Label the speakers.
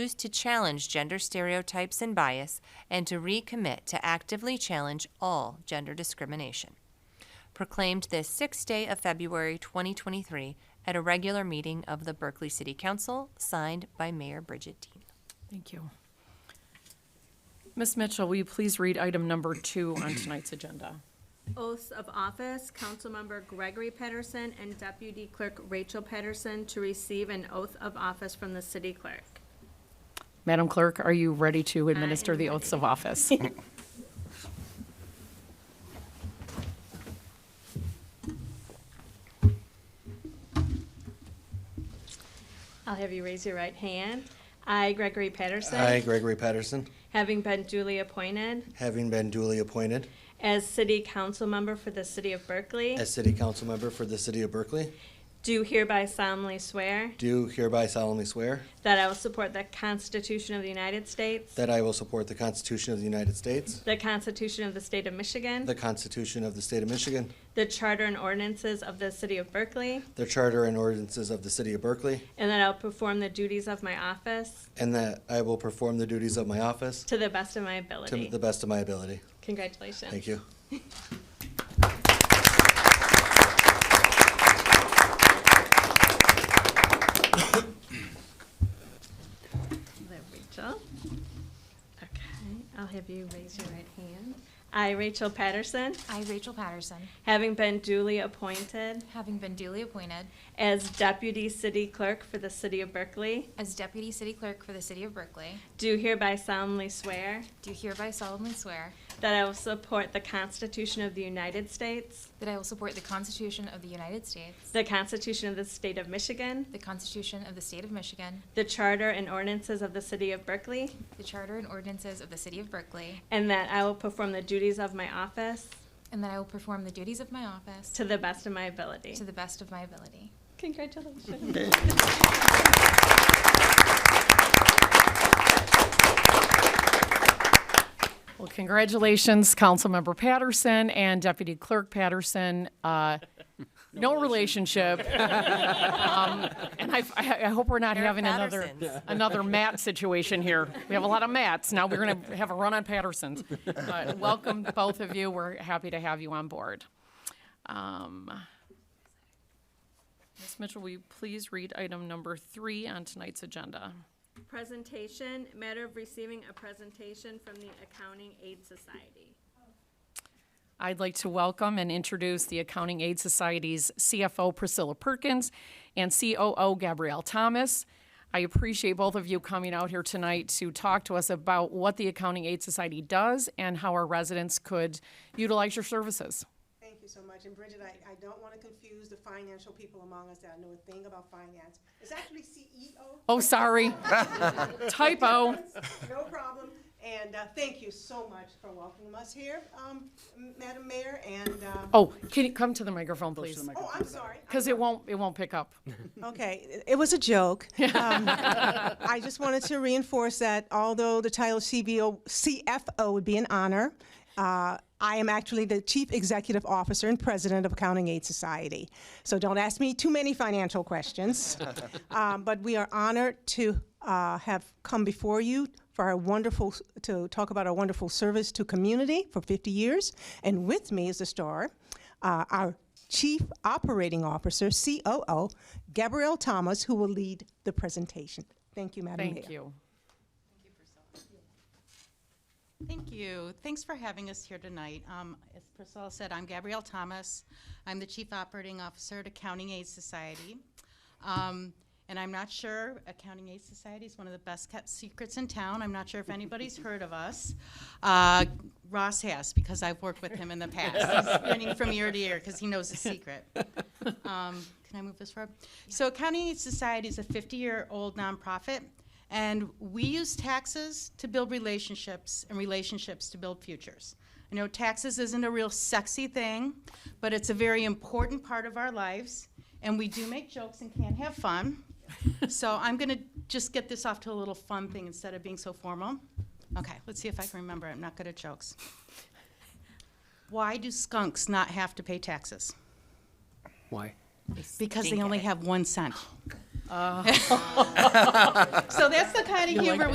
Speaker 1: choose to challenge gender stereotypes and bias and to recommit to actively challenge all gender discrimination. Proclaimed this sixth day of February 2023 at a regular meeting of the Berkeley City Council, signed by Mayor Bridget Dean.
Speaker 2: Thank you. Ms. Mitchell, will you please read item number two on tonight's agenda?
Speaker 3: Oaths of office, Councilmember Gregory Pedersen and Deputy Clerk Rachel Pedersen to receive an oath of office from the city clerk.
Speaker 2: Madam Clerk, are you ready to administer
Speaker 3: am
Speaker 2: the oaths of office?
Speaker 3: I'll have you raise your right hand. I, Gregory Pedersen.
Speaker 4: I, Gregory Patterson,
Speaker 3: Having been duly appointed
Speaker 4: having been duly appointed
Speaker 3: as city council member for the city of Berkeley,
Speaker 4: as City Council Member for the City of Berkeley,
Speaker 3: do hereby solemnly swear
Speaker 4: do hereby solemnly swear
Speaker 3: that I will support the Constitution of the United States,
Speaker 4: that I will support the Constitution of the United States,
Speaker 3: the Constitution of the state of Michigan,
Speaker 4: the Constitution of the State of Michigan,
Speaker 3: the charter and ordinances of the city of Berkeley,
Speaker 4: the Charter and ordinances of the City of Berkeley,
Speaker 3: and that I'll perform the duties of my office
Speaker 4: and that I will perform the duties of my office
Speaker 3: to the best of my
Speaker 4: to
Speaker 3: ability.
Speaker 4: the best of my ability.
Speaker 3: Congratulations.
Speaker 4: Thank you.
Speaker 3: There, Rachel. Okay, I'll have you raise your right hand. I, Rachel Patterson,
Speaker 5: I, Rachel Patterson,
Speaker 3: having been duly appointed
Speaker 5: having been duly appointed
Speaker 3: as Deputy City Clerk for the City of Berkeley,
Speaker 5: as Deputy City Clerk for the City of Berkeley,
Speaker 3: do hereby solemnly swear
Speaker 5: do hereby solemnly swear
Speaker 3: that I will support the Constitution of the United States,
Speaker 5: that I will support the Constitution of the United States,
Speaker 3: the Constitution of the State of Michigan,
Speaker 5: the Constitution of the State of Michigan,
Speaker 3: the Charter and ordinances of the City of Berkeley,
Speaker 5: the Charter and ordinances of the City of Berkeley,
Speaker 3: and that I will perform the duties of my office
Speaker 5: and that I will perform the duties of my office
Speaker 3: to the best of my ability.
Speaker 5: to the best of my ability.
Speaker 3: Congratulations.
Speaker 2: Well, congratulations, Councilmember Patterson and Deputy Clerk Patterson. Uh, No relationship. Um, And I, I I hope we're not
Speaker 1: Eric
Speaker 2: having another,
Speaker 1: Pattersons.
Speaker 2: another Matt situation here. We have a lot of Matts. Now we're going to have a run on Pattersons. But Welcome, both of you. We're happy to have you on board. Um, Ms. Mitchell, will you please read item number three on tonight's agenda?
Speaker 3: Presentation, matter of receiving a presentation from the Accounting Aid Society.
Speaker 2: I'd like to welcome and introduce the Accounting Aid Society's CFO Priscilla Perkins and COO Gabrielle Thomas. I appreciate both of you coming out here tonight to talk to us about what the Accounting Aid Society does and how our residents could utilize your services.
Speaker 6: Thank you so much. And Bridget, I, I don't want to confuse the financial people among us that know a thing about finance. It's actually E CEO.
Speaker 2: Oh, sorry. Typo.
Speaker 6: No problem. And uh, thank you so much for welcoming us here, um, M- Madam Mayor, and, uh,
Speaker 2: Oh, can you come to the microphone, please?
Speaker 6: oh, I'm sorry.
Speaker 2: Because it won't, it won't pick up.
Speaker 6: Okay, it- it was a joke. Um, I just wanted to reinforce that although the title CBO, CFO would be an honor, uh, I am actually the Chief Executive Officer and President of Accounting Aid Society. So don't ask me too many financial questions. Um, But we are honored to uh, have come before you for our wonderful, to talk about our wonderful service to community for 50 years. And with me is the star, uh, our Chief Operating Officer, COO, Gabrielle Thomas, who will lead the presentation. Thank you, Madam Mayor.
Speaker 2: Thank you.
Speaker 7: Thank you. Thanks for having us here tonight. Um, As Priscilla said, I'm Gabrielle Thomas. I'm the Chief Operating Officer at Accounting Aid Society. Um, And I'm not sure, Accounting Aid Society is one of the best-kept secrets in town. I'm not sure if anybody's heard of us. Uh, Ross has, because I've worked with him in the past. He's grinning from ear to ear because he knows the secret. Um, Can I move this forward? So Accounting Aid Society is a 50-year-old nonprofit, and we use taxes to build relationships and relationships to build futures. I know taxes isn't a real sexy thing, but it's a very important part of our lives, and we do make jokes and can have fun. So I'm going to just get this off to a little fun thing instead of being so formal. Okay, let's see if I can remember. I'm not good at jokes. Why do skunks not have to pay taxes?
Speaker 8: Why?
Speaker 7: Because
Speaker 1: Stink
Speaker 7: they
Speaker 1: at
Speaker 7: only
Speaker 1: it.
Speaker 7: have one cent. So that's the kind of humor